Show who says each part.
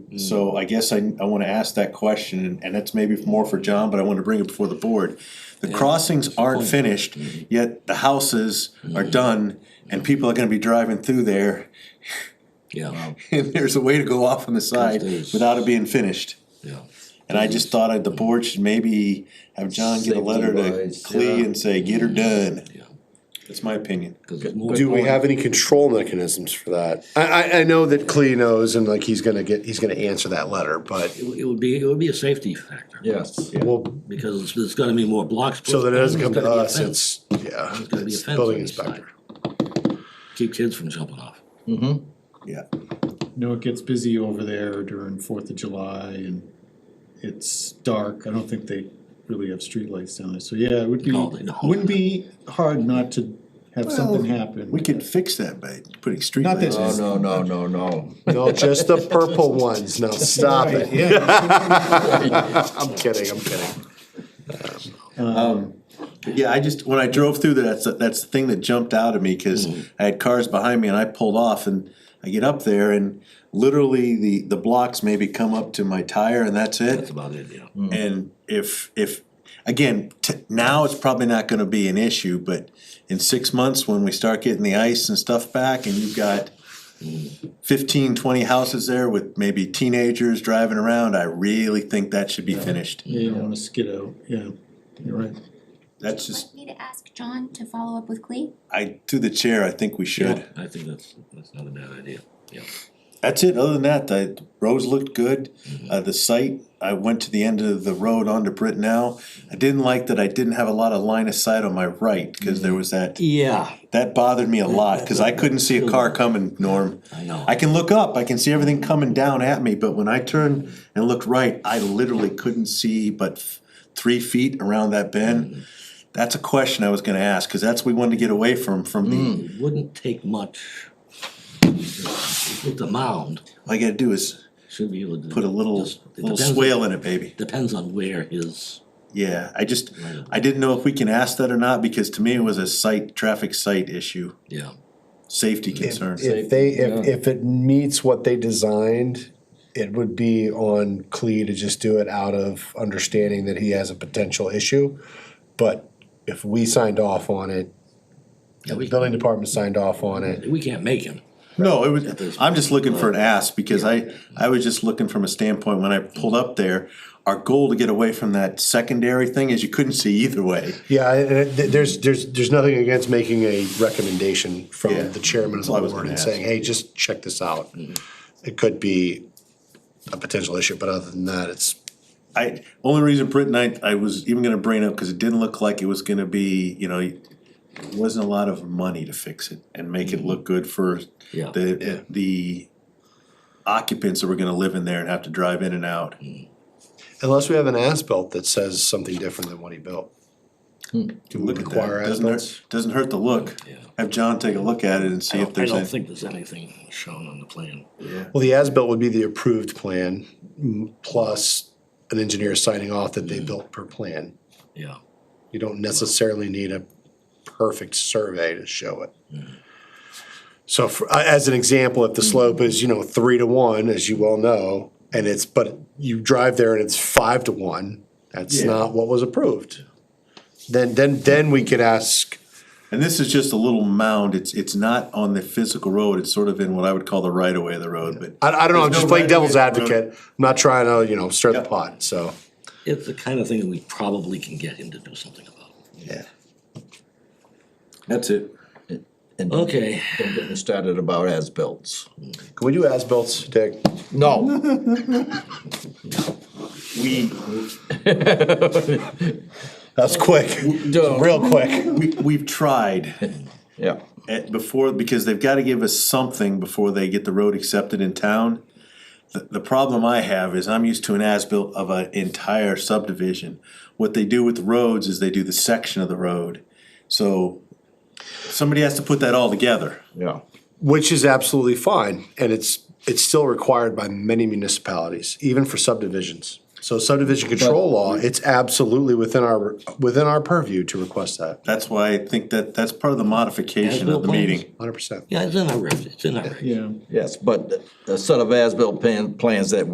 Speaker 1: So I guess I, I wanna ask that question, and- and that's maybe more for John, but I wanna bring it before the board. The crossings aren't finished, yet the houses are done, and people are gonna be driving through there,
Speaker 2: Yeah,
Speaker 1: and there's a way to go off on the side
Speaker 2: there's-
Speaker 1: without it being finished.
Speaker 2: yeah.
Speaker 1: And I just thought I'd- the board should maybe have John get a letter to
Speaker 3: Safety-wise,
Speaker 1: Clea
Speaker 3: yeah.
Speaker 1: and say, get her done.
Speaker 2: Yeah.
Speaker 1: That's my opinion.
Speaker 2: 'cause it's more
Speaker 4: Do we
Speaker 2: going-
Speaker 4: have any control mechanisms for that? I, I, I know that Clea knows and like he's gonna get, he's gonna answer that letter, but,
Speaker 2: It would- it would be, it would be a safety factor.
Speaker 3: Yes.
Speaker 4: well,
Speaker 2: Because there's- there's gonna be more blocks.
Speaker 4: so that it doesn't come
Speaker 2: There's
Speaker 4: to
Speaker 2: gonna be a
Speaker 4: us,
Speaker 2: fence.
Speaker 4: it's, yeah,
Speaker 2: There's gonna be a
Speaker 4: it's
Speaker 2: fence
Speaker 4: building
Speaker 2: on each
Speaker 4: inspector.
Speaker 2: side. Keep kids from jumping off.
Speaker 1: Yeah.
Speaker 5: know it gets busy over there during Fourth of July and it's dark, I don't think they really have streetlights down there, so yeah, it would be,
Speaker 2: No, they don't.
Speaker 5: wouldn't be hard not to have something
Speaker 1: Well,
Speaker 5: happen.
Speaker 1: We Oh, could fix that by putting
Speaker 5: Not that-
Speaker 1: streetlights
Speaker 3: No,
Speaker 1: in.
Speaker 3: no, no, no, no.
Speaker 4: No, just the purple ones, now stop it. I'm kidding, I'm kidding.
Speaker 1: Yeah, I just, when I drove through there, that's, the- that's the thing that jumped out at me, cause I had cars behind me and I pulled off and I get up there and literally the, the blocks maybe come up to my tire and that's
Speaker 2: That's
Speaker 1: it.
Speaker 2: about it, yeah.
Speaker 1: And if, if, again, t- now it's probably not gonna be an issue, but in six months, when we start getting the ice and stuff back and you've got 15, 20 houses there with maybe teenagers driving around, I really think that should be finished.
Speaker 5: Yeah, you don't wanna skid out, yeah, you're right.
Speaker 1: That's just,
Speaker 6: Me to ask John to follow up with Clee?
Speaker 1: I, through the chair, I think we should.
Speaker 2: I think that's, that's not a bad idea, yeah.
Speaker 1: That's it, other than that, the roads looked good,
Speaker 2: Mm-hmm.
Speaker 1: uh, the site, I went to the end of the road onto Brittenell. I didn't like that I didn't have a lot of line of sight on my right, cause
Speaker 2: Mm-hmm.
Speaker 1: there was that,
Speaker 2: Yeah.
Speaker 1: that bothered me a lot, cause I couldn't see a car coming, Norm.
Speaker 2: I know.
Speaker 1: I can look up, I can see everything coming down at me, but when I turned and looked right, I literally couldn't see but f- three feet around that
Speaker 2: Mm-hmm.
Speaker 1: bend. That's a question I was gonna ask, cause that's what we wanted to get away from, from the,
Speaker 2: It wouldn't take much. With the mound,
Speaker 1: all you gotta do is
Speaker 2: should be able to.
Speaker 1: put a little,
Speaker 2: just- it
Speaker 1: little
Speaker 2: depends-
Speaker 1: swale in it, baby.
Speaker 2: Depends on where his,
Speaker 1: Yeah, I just,
Speaker 2: Right.
Speaker 1: I didn't know if we can ask that or not, because to me it was a site, traffic site issue,
Speaker 2: yeah.
Speaker 1: safety concern.
Speaker 4: If they, if, if it meets what they designed, it would be on Clea to just do it out of understanding that he has a potential issue. But if we signed off on it,
Speaker 2: Yeah,
Speaker 4: the
Speaker 2: we-
Speaker 4: building department signed off on it,
Speaker 2: We can't make him.
Speaker 1: No, it was, I'm just looking for an ask, because I, I was just looking from a standpoint, when I pulled up there, our goal to get away from that secondary thing is you couldn't see either way.
Speaker 4: Yeah, and it- th- there's, there's, there's nothing against making a recommendation
Speaker 1: Yeah.
Speaker 4: from the chairman of
Speaker 1: That's what I
Speaker 4: the
Speaker 1: was
Speaker 4: board
Speaker 1: gonna
Speaker 4: and saying,
Speaker 1: ask.
Speaker 4: hey, just check this out. It could be a potential issue, but other than that, it's,
Speaker 1: I, only reason Britton, I, I was even gonna bring it up, cause it didn't look like it was gonna be, you know, it wasn't a lot of money to fix it and make it look good for
Speaker 2: Mm-hmm. Yeah.
Speaker 1: the, the occupants that were gonna live in there and have to drive in and out.
Speaker 4: unless we have an as-built that says something different than what he built. Do we
Speaker 1: Look at
Speaker 4: require
Speaker 1: that, doesn't
Speaker 4: as-built?
Speaker 1: hurt, doesn't hurt to look.
Speaker 2: Yeah.
Speaker 1: Have John take a look at it and see
Speaker 2: I
Speaker 1: if
Speaker 2: don't, I
Speaker 1: there's
Speaker 2: don't
Speaker 1: any.
Speaker 2: think there's anything shown on the plan.
Speaker 4: Well, the as-built would be the approved plan, m- plus an engineer signing off that they built per plan.
Speaker 2: Yeah,
Speaker 4: You don't necessarily need a perfect survey to show it. So for, uh, as an example, if the slope is, you know, three to one, as you well know, and it's, but you drive there and it's five to one, that's not what was approved. Then, then, then we could ask,
Speaker 1: And this is just a little mound, it's, it's not on the physical road, it's sort of in what I would call the right of way of the road, but.
Speaker 4: I, I don't know, I'm
Speaker 1: There's
Speaker 4: just
Speaker 1: no
Speaker 4: playing
Speaker 1: right way
Speaker 4: devil's
Speaker 1: to do it.
Speaker 4: advocate, I'm not trying to, you know, stir the
Speaker 1: Yeah.
Speaker 4: pot, so.
Speaker 2: it's the kind of thing that we probably can get him to do something about.
Speaker 4: Yeah.
Speaker 1: That's it.
Speaker 3: And don't
Speaker 2: Okay,
Speaker 3: get me started about as-bills.
Speaker 4: Can we do as-bills, Dick?
Speaker 3: No.
Speaker 1: We,
Speaker 4: That's quick,
Speaker 3: Don't.
Speaker 4: real quick.
Speaker 1: we, we've tried
Speaker 3: Yeah.
Speaker 1: at, before, because they've gotta give us something before they get the road accepted in town. The, the problem I have is I'm used to an as-built of an entire subdivision. What they do with the roads is they do the section of the road, so somebody has to put that all together.
Speaker 3: Yeah.
Speaker 4: Which is absolutely fine, and it's, it's still required by many municipalities, even for subdivisions. So subdivision control law, it's absolutely within our, within our purview to request that,
Speaker 1: That's why I think that, that's part of the modification of the
Speaker 2: As-built
Speaker 1: meeting.
Speaker 4: hundred percent.
Speaker 2: yeah, it's in our, regs, it's in our. regs.
Speaker 5: Yeah.
Speaker 3: Yes, but a set of as-built plan, plans that